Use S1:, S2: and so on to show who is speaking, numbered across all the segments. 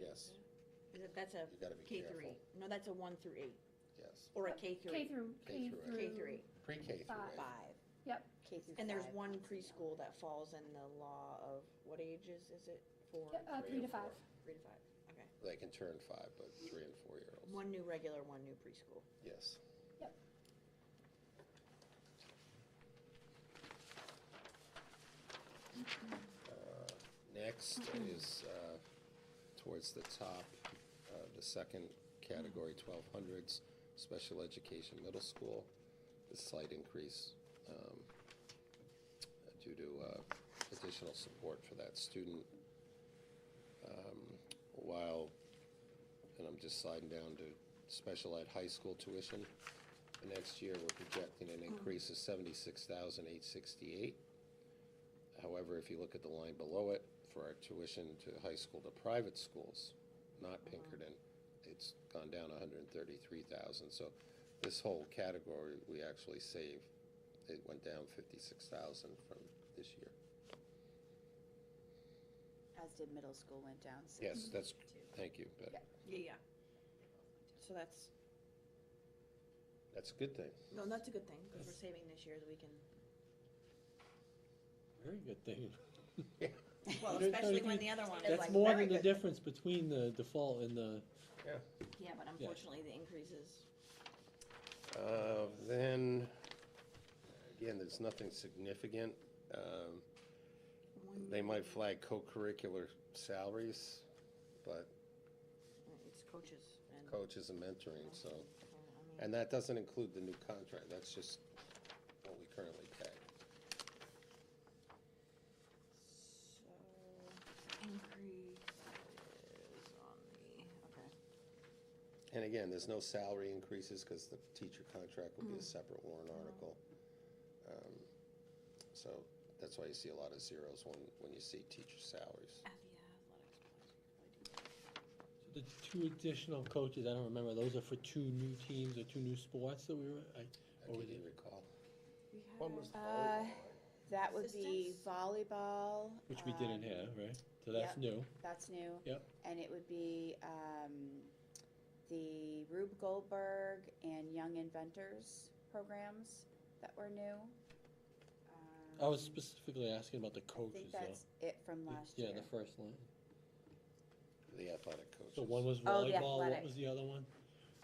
S1: yes,
S2: Is it- That's a
S1: You gotta be
S2: K three.
S1: careful.
S2: No, that's a one through eight,
S1: yes.
S2: or a Uh, K three.
S3: K through,
S1: K
S3: K
S1: through eight.
S3: through.
S2: K three,
S1: Pre-K through
S3: Five.
S1: eight.
S2: five.
S3: Yep.
S4: K through
S2: And there's
S4: five.
S2: one preschool that falls in the law of, what ages is it? Four,
S3: Yeah, uh, three to five.
S2: three to five, okay.
S1: They can turn five, but three and four-year-olds,
S2: One new regular, one new preschool.
S1: yes. Uh, Next is uh, towards the top, uh, the second category,
S2: Mm-hmm.
S1: 1200s, special education middle school. The slight increase um, due to uh, additional support for that student. Um, While, and I'm just sliding down to special ed high school tuition. The Next year, we're projecting an increase of 76,868. However, if you look at the line below it, for our tuition to high school to private schools, not Pinkerton, it's gone down hundred and thirty-three thousand, so this whole category, we actually saved, it went down fifty-six thousand from this year.
S4: As did middle school went down. so-
S1: Yes, that's, thank you, but
S4: Mm-hmm. Yeah.
S2: Yeah, yeah. So that's,
S1: that's a good thing.
S2: no, that's a good thing, because we're saving this year that we can,
S5: Very good thing.
S2: well,
S5: There's
S2: especially
S5: gotta
S2: when
S5: be-
S2: the other one is
S5: That's
S2: like
S5: more
S2: very
S5: than the
S2: good.
S5: difference between the default and the,
S2: Yeah, but unfortunately, the increases,
S1: Uh, Then, again, there's nothing significant. Um,
S2: one,
S1: They might flag co-curricular salaries, but
S2: it's coaches and,
S1: coaches and mentoring, so.
S2: I mean,
S1: And that doesn't include the new contract, that's just what we currently pay.
S2: so, increase is on the, okay.
S1: And again, there's no salary increases, because the teacher contract
S4: Mm.
S1: will be a separate warrant
S4: Mm-hmm.
S1: article. Um, So that's why you see a lot of zeros when, when you see teacher salaries.
S2: E
S5: the two additional coaches, I don't remember, those are for two new teams or two new sports that we were, I,
S1: I
S5: or
S1: can't
S5: was it?
S1: even recall.
S2: We had-
S4: Uh, That would be
S2: Assistance?
S4: volleyball.
S5: Which we
S4: um,
S5: didn't have, right? So that's
S4: yep.
S5: new.
S4: That's new.
S5: Yep.
S4: And it would be um, the Rube Goldberg and Young Inventors programs that were new.
S5: I was
S4: Um,
S5: specifically asking about the
S4: I think
S5: coaches
S4: that's
S5: though.
S4: it from last year.
S5: uh, Yeah, the first line.
S1: The athletic coaches.
S5: So one was
S4: Oh, the
S5: volleyball, what
S4: athletic.
S5: was the other one?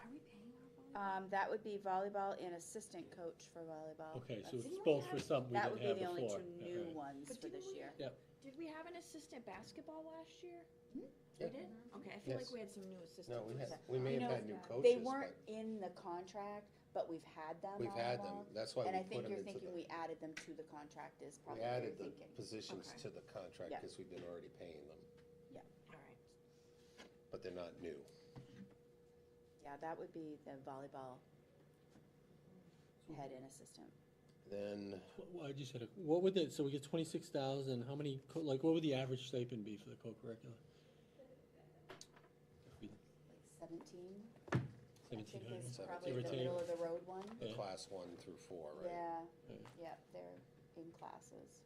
S2: Are we paying our volleyball?
S4: Um, that would be volleyball and assistant coach for volleyball.
S5: Okay,
S4: That's-
S5: so it's
S2: Didn't we
S5: both for
S2: have-
S5: something we
S4: That would
S5: didn't
S4: be
S5: have
S4: the only
S5: before.
S4: two
S5: Yeah,
S4: new
S5: right.
S4: ones
S2: But
S4: for
S2: didn't
S4: this
S2: we-
S4: year.
S2: Did we have an assistant basketball last year?
S1: Hmm? Yeah.
S2: We did? Okay, I feel like
S1: Yes.
S2: we had some new assistants.
S1: No, we
S2: Was
S1: had,
S2: that-
S1: we may
S4: You
S1: have had
S4: know,
S1: new
S4: They
S1: coaches,
S4: weren't
S1: but
S4: in the contract, but we've had them
S1: we've
S4: all
S1: had them,
S4: along.
S1: that's why
S4: And I
S1: we put
S4: think
S1: them
S4: you're
S1: into
S4: thinking
S1: the,
S4: we added them to the contract is
S1: we
S4: probably what
S1: added
S4: you're
S1: the
S4: thinking.
S1: positions
S2: Okay.
S1: to the contract,
S4: Yeah.
S1: because we've been already paying them,
S2: All right.
S1: but they're not new.
S4: Yeah, that would be the volleyball head and assistant.
S1: Then,
S5: What- what- I just had a, what would the, so we get twenty-six thousand, how many, co- like, what would the average stipend be for the co-curricular?
S4: Like Seventeen, I think
S5: Seventeen hundred?
S4: is
S1: hundred,
S4: probably
S5: give or
S4: the
S5: take.
S4: middle of the road one.
S1: the
S5: Yeah.
S1: class one through four, right?
S4: Yeah,
S5: Yeah.
S4: yep, they're in classes.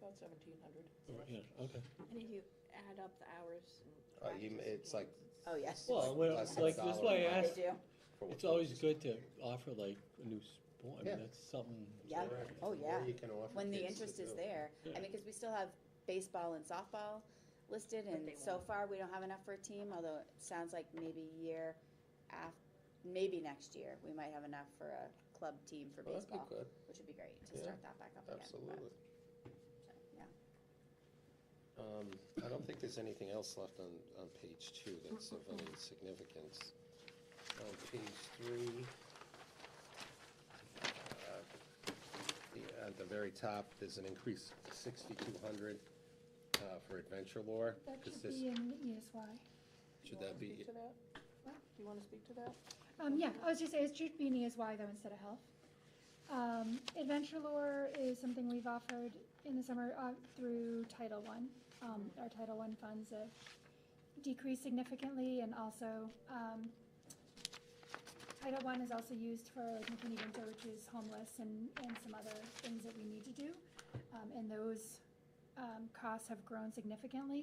S6: About seventeen hundred.
S5: Yeah, okay.
S2: And if you add up the hours and.
S1: Uh, you m-
S2: practice
S1: it's like-
S2: games,
S4: Oh, yes.
S5: Well, well,
S1: less than
S5: like,
S1: a
S5: that's
S1: dollar
S5: why I
S1: an hour.
S5: asked,
S4: They do,
S1: for what
S5: it's always
S1: purposes.
S5: good to offer like a new sport, I
S1: Yeah.
S5: mean, that's something,
S4: yeah,
S1: Correct.
S4: oh,
S1: Or
S4: yeah.
S1: you can offer
S4: when the
S1: kids to
S4: interest is
S1: do.
S4: there. I
S5: Yeah.
S4: mean, because we still have baseball and softball listed,
S2: But
S4: and
S2: they
S4: so
S2: won't.
S4: far, we don't have enough for a team, although it sounds like maybe year af, maybe next year, we might have enough for a club team for
S1: Well, that'd be
S4: baseball,
S1: good,
S4: which would be great to
S1: Yeah,
S4: start that back up again. but-
S1: absolutely.
S4: so, Yeah.
S1: Um, I don't think there's anything else left on, on page two that's of any significance. On page three, uh, the- at the very top, there's an increase of sixty-two hundred, uh, for adventure lore.
S3: That
S1: 'cause
S3: should
S1: this-
S3: be in
S2: E
S3: the ESY.
S1: Should that be,
S6: Do you wanna speak to that?
S3: Um, yeah, I was just, it should be an ESY though instead of health. Um, Adventure Lore is something we've offered in the summer, uh, through Title One. Um, our Title One funds have decreased significantly and also, um, Title One is also used for like, McKinney Winter, which is homeless and, and some other things that we need to do. Um, and those, um, costs have grown significantly.